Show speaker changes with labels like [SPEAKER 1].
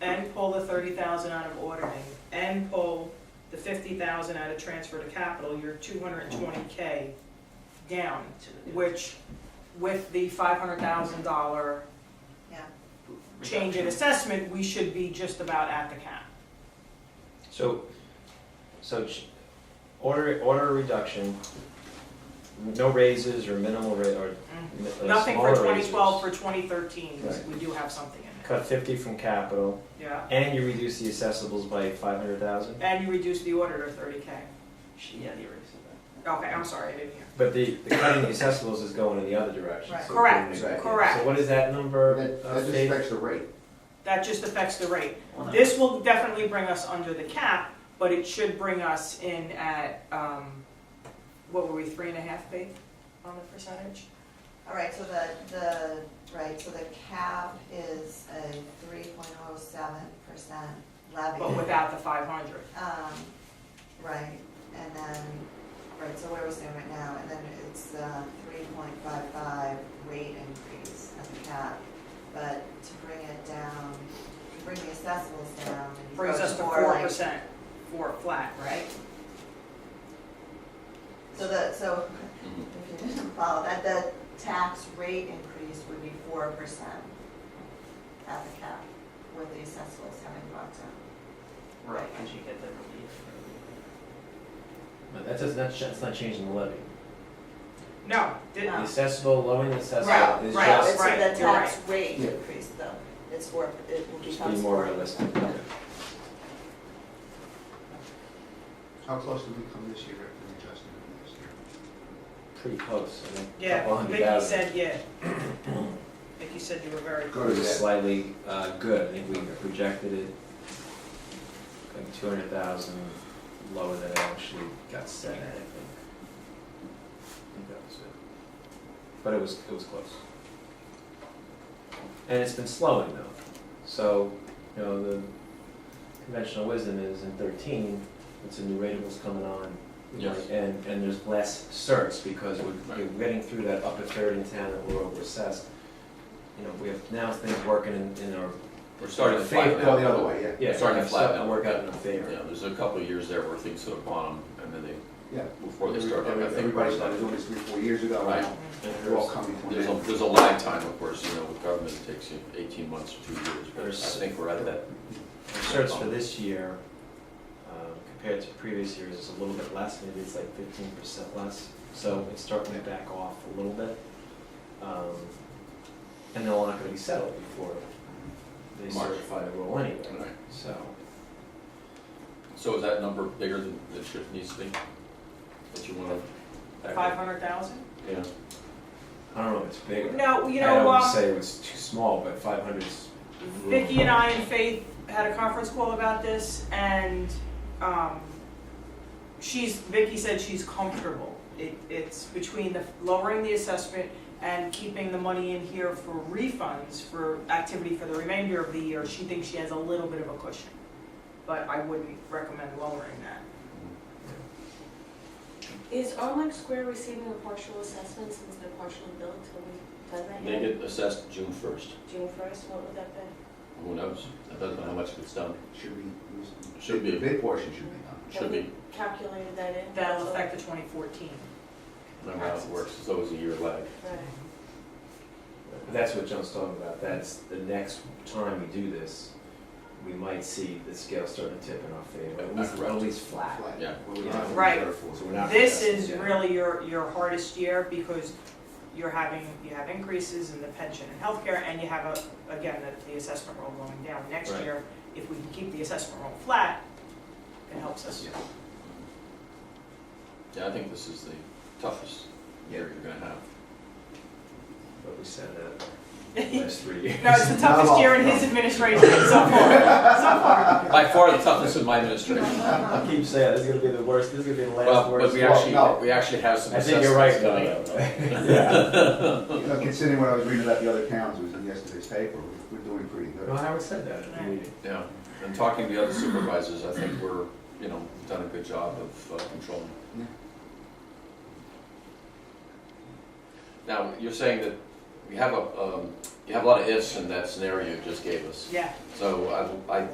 [SPEAKER 1] thousand out of ordering and pull the fifty thousand out of transfer to capital, you're two hundred and twenty K down, which with the five hundred thousand dollar
[SPEAKER 2] Yeah.
[SPEAKER 1] change in assessment, we should be just about at the cap.
[SPEAKER 3] So, so ch- order, order a reduction, no raises or minimal ra, or mi- uh,
[SPEAKER 1] Nothing for
[SPEAKER 3] smaller
[SPEAKER 1] twenty twelve,
[SPEAKER 3] raises.
[SPEAKER 1] for twenty thirteen,
[SPEAKER 3] Right.
[SPEAKER 1] we do have something in there.
[SPEAKER 3] Cut fifty from capital,
[SPEAKER 1] Yeah,
[SPEAKER 3] and you reduce the assessables by five hundred thousand.
[SPEAKER 1] and you reduce the order to thirty K.
[SPEAKER 4] She, yeah, the eraser.
[SPEAKER 1] Okay, I'm sorry, I didn't hear.
[SPEAKER 3] But the, the cutting the assessables is going in the other direction.
[SPEAKER 2] Right.
[SPEAKER 3] So-
[SPEAKER 1] Correct,
[SPEAKER 3] Right. So
[SPEAKER 1] correct.
[SPEAKER 3] what is that number?
[SPEAKER 5] That,
[SPEAKER 3] uh,
[SPEAKER 5] that just
[SPEAKER 3] Faith?
[SPEAKER 5] affects the rate.
[SPEAKER 1] That just affects the rate.
[SPEAKER 4] Well, no.
[SPEAKER 1] This will definitely bring us under the cap, but it should bring us in at, um, what were we, three and a half big on the percentage?
[SPEAKER 2] All right, so the, the, right, so the cap is a three point oh seven percent levy.
[SPEAKER 1] But without the five hundred.
[SPEAKER 2] Um, right, and then, right, so where we stand right now, and then it's uh three point five five rate increase at the cap. But to bring it down, to bring the assessables down and go
[SPEAKER 1] Brings us to
[SPEAKER 2] more
[SPEAKER 1] four
[SPEAKER 2] like.
[SPEAKER 1] percent for flat, right?
[SPEAKER 2] So the, so,
[SPEAKER 3] Mm-hmm.
[SPEAKER 2] if you didn't follow that, the tax rate increase would be four percent at the cap with the assessables having brought down.
[SPEAKER 4] Right, because you get the relief.
[SPEAKER 3] No, That does, that's, that's not changing the levy.
[SPEAKER 1] No, did-
[SPEAKER 3] The
[SPEAKER 2] No.
[SPEAKER 3] accessible, lowering the
[SPEAKER 1] Right,
[SPEAKER 3] accessible is
[SPEAKER 1] right,
[SPEAKER 2] No,
[SPEAKER 3] just
[SPEAKER 2] it's
[SPEAKER 1] right,
[SPEAKER 2] the
[SPEAKER 1] you're
[SPEAKER 2] tax rate
[SPEAKER 5] Yeah.
[SPEAKER 2] increase though, it's four, it will
[SPEAKER 3] Just be
[SPEAKER 2] become
[SPEAKER 3] more
[SPEAKER 2] four.
[SPEAKER 3] realistic.
[SPEAKER 5] How close did we come this year after the adjustment last year?
[SPEAKER 3] Pretty close, I mean, a couple
[SPEAKER 1] yeah,
[SPEAKER 3] hundred
[SPEAKER 1] Vicky
[SPEAKER 3] thousand.
[SPEAKER 1] said, yeah. Vicky said you were very
[SPEAKER 5] Go
[SPEAKER 3] It
[SPEAKER 5] to
[SPEAKER 1] close.
[SPEAKER 3] was
[SPEAKER 5] that.
[SPEAKER 3] slightly uh, good, I think we projected it like two hundred thousand lower than it actually got set at, I think. I think that was it. But it was, it was close. And it's been slowing though, so, you know, the conventional wisdom is in thirteen, it's a new rateables coming on.
[SPEAKER 6] Yes.
[SPEAKER 3] And, and there's less certs because we're, we're getting through that upper third in town that we're over assessed. You know, we have now things working in, in our.
[SPEAKER 6] We're starting to
[SPEAKER 3] Faith-
[SPEAKER 6] flatten
[SPEAKER 5] No, the
[SPEAKER 6] out.
[SPEAKER 5] other way, yeah.
[SPEAKER 3] Yeah,
[SPEAKER 6] starting to
[SPEAKER 3] stuff
[SPEAKER 6] flatten out.
[SPEAKER 3] Work out in our
[SPEAKER 6] Yeah,
[SPEAKER 3] favor.
[SPEAKER 6] there's a couple of years there where things hit a bottom and then they,
[SPEAKER 5] Yeah.
[SPEAKER 6] before they start. up, I think
[SPEAKER 5] Everybody
[SPEAKER 6] we're
[SPEAKER 5] started doing this three, four years ago.
[SPEAKER 6] Right.
[SPEAKER 3] And
[SPEAKER 5] They're all
[SPEAKER 3] there's-
[SPEAKER 5] coming to an
[SPEAKER 6] There's a,
[SPEAKER 5] end.
[SPEAKER 6] there's a lag time, of course, you know, with government, it takes you eighteen months to two years, but I
[SPEAKER 3] There's-
[SPEAKER 6] think we're at that.
[SPEAKER 3] Our certs for this year, um, compared to previous years, is a little bit less, maybe it's like fifteen percent less. So it's starting to back off a little bit. Um, And they're all not gonna be settled before they
[SPEAKER 6] March.
[SPEAKER 3] certify the roll anyway,
[SPEAKER 6] Right.
[SPEAKER 3] so.
[SPEAKER 6] So is that number bigger than it should, needs to be? That you wanna?
[SPEAKER 1] Five hundred thousand?
[SPEAKER 6] Yeah.
[SPEAKER 3] I don't know if it's big.
[SPEAKER 1] No, you
[SPEAKER 3] I
[SPEAKER 1] know,
[SPEAKER 3] don't
[SPEAKER 1] um,
[SPEAKER 3] say it was too small, but 500 is
[SPEAKER 1] Vicky and I and Faith had a conference call about this, and um, she's Vicky said she's comfortable. It, it's between the lowering the assessment and keeping the money in here for refunds for activity for the remainder of the year. She thinks she has a little bit of a cushion, but I wouldn't recommend lowering that.
[SPEAKER 7] Is Arlong Square receiving a partial assessment since they're partially billed till we done that
[SPEAKER 6] They
[SPEAKER 7] yet?
[SPEAKER 6] get assessed June first,
[SPEAKER 7] June first, what would that be?
[SPEAKER 6] who knows? I don't know how much it's done,
[SPEAKER 5] Should be.
[SPEAKER 6] Should be.
[SPEAKER 5] Big portion should be done.
[SPEAKER 6] should
[SPEAKER 7] Have we
[SPEAKER 6] be,
[SPEAKER 7] Calculated that in?
[SPEAKER 1] That'll affect the 2014.
[SPEAKER 6] remember how it works, it's always a year lag.
[SPEAKER 7] Right.
[SPEAKER 3] That's what John's talking about, that's the next time we do this, we might see the scale starting to tip in our favor, at least, at least flat.
[SPEAKER 5] Flat.
[SPEAKER 6] Yeah.
[SPEAKER 5] Well, we don't have to
[SPEAKER 1] Right.
[SPEAKER 5] reserve for it.
[SPEAKER 3] So we're not-
[SPEAKER 1] This is
[SPEAKER 3] Yeah.
[SPEAKER 1] really your, your hardest year because you're having, you have increases in the pension and healthcare and you have a, again, the, the assessment roll going down next
[SPEAKER 6] Right.
[SPEAKER 1] year. If we can keep the assessment roll flat, it helps us.
[SPEAKER 6] Yeah, I think this is the toughest year you're gonna have.
[SPEAKER 3] But we said that
[SPEAKER 1] No,
[SPEAKER 3] last three years.
[SPEAKER 1] it's the
[SPEAKER 5] Not at
[SPEAKER 1] toughest
[SPEAKER 5] all.
[SPEAKER 1] year in his administration so far, so far.
[SPEAKER 6] By far the toughest in my administration.
[SPEAKER 3] I keep saying, this is gonna be the worst, this is gonna be the last
[SPEAKER 6] Well,
[SPEAKER 3] worst.
[SPEAKER 6] but we
[SPEAKER 5] Well, no.
[SPEAKER 6] actually, we actually have some
[SPEAKER 3] I think you're right,
[SPEAKER 6] assessments coming
[SPEAKER 3] though.
[SPEAKER 6] up.
[SPEAKER 5] You know, Considering what I was reading about the other towns, it was in yesterday's paper, we're we're doing pretty good.
[SPEAKER 3] No, Howard said that at the
[SPEAKER 1] Right.
[SPEAKER 3] meeting.
[SPEAKER 6] Yeah, and talking to the other supervisors, I think we're, you know, we've done a good job of uh, controlling.
[SPEAKER 5] Yeah.
[SPEAKER 6] Now, you're saying that we have a, um, you have a lot of ifs in that scenario you just gave us.
[SPEAKER 1] Yeah.
[SPEAKER 6] So I, I